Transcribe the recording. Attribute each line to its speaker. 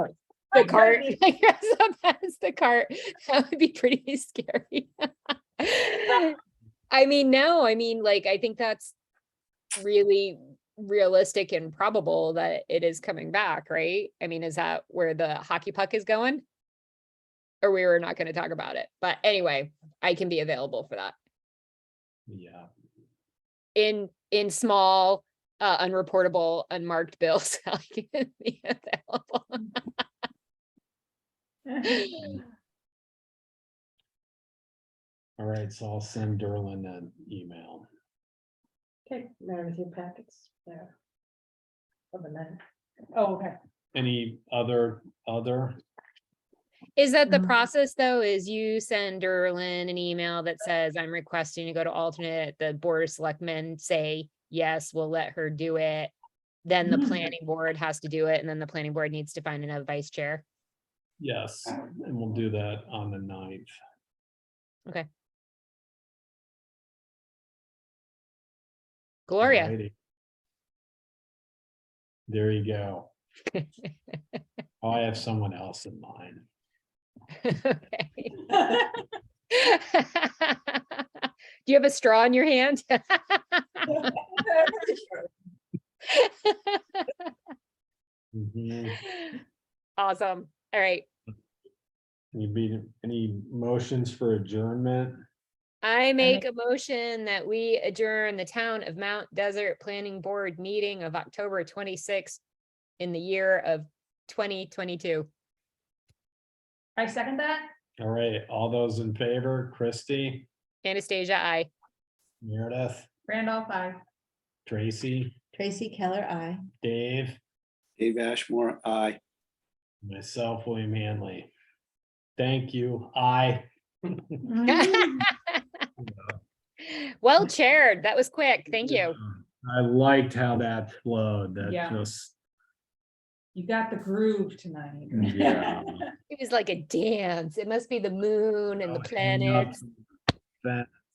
Speaker 1: the cart. I guess up as the cart. That would be pretty scary. I mean, no, I mean, like, I think that's really realistic and probable that it is coming back, right? I mean, is that where the hockey puck is going? Or we were not gonna talk about it, but anyway, I can be available for that
Speaker 2: Yeah.
Speaker 1: in, in small, uh, unreportable, unmarked bills. I can be available.
Speaker 2: All right, so I'll send Derlin an email.
Speaker 3: Okay, there with your packets there. Over there. Oh, okay.
Speaker 2: Any other, other?
Speaker 1: Is that the
Speaker 3: Mm.
Speaker 1: process though, is you send Derlin an email that says, I'm requesting to go to alternate, the board of selectmen say, yes, we'll let her do it. Then the
Speaker 3: Mm.
Speaker 1: planning board has to do it, and then the planning board needs to find another vice chair.
Speaker 2: Yes, and we'll do that on the ninth.
Speaker 1: Gloria,
Speaker 2: Alrighty. There you go. I have someone else in mind.
Speaker 1: okay. Do you have a straw in your hand?
Speaker 2: Mhm.
Speaker 1: Awesome, all right,
Speaker 2: Any, be- any motions for adjournment?
Speaker 1: I make a motion that we adjourn the Town of Mount Desert Planning Board meeting of October twenty-sixth in the year of twenty twenty-two.
Speaker 3: I second that.
Speaker 2: All right, all those in favor, Christie,
Speaker 1: Anastasia, I.
Speaker 2: Meredith,
Speaker 3: Randolph, I.
Speaker 2: Tracy,
Speaker 4: Tracy Keller, I.
Speaker 2: Dave,
Speaker 5: Dave Ashmore, aye.
Speaker 2: myself, William Hanley. Thank you. Aye.
Speaker 3: Mm-hmm.
Speaker 1: Well chaired, that was quick, thank you.
Speaker 2: I liked how that flowed. That
Speaker 3: Yeah.
Speaker 2: just,
Speaker 3: You got the groove tonight.
Speaker 2: yeah.
Speaker 1: It was like a dance, it must be the moon and the
Speaker 2: Oh, hang up
Speaker 1: planets.
Speaker 2: That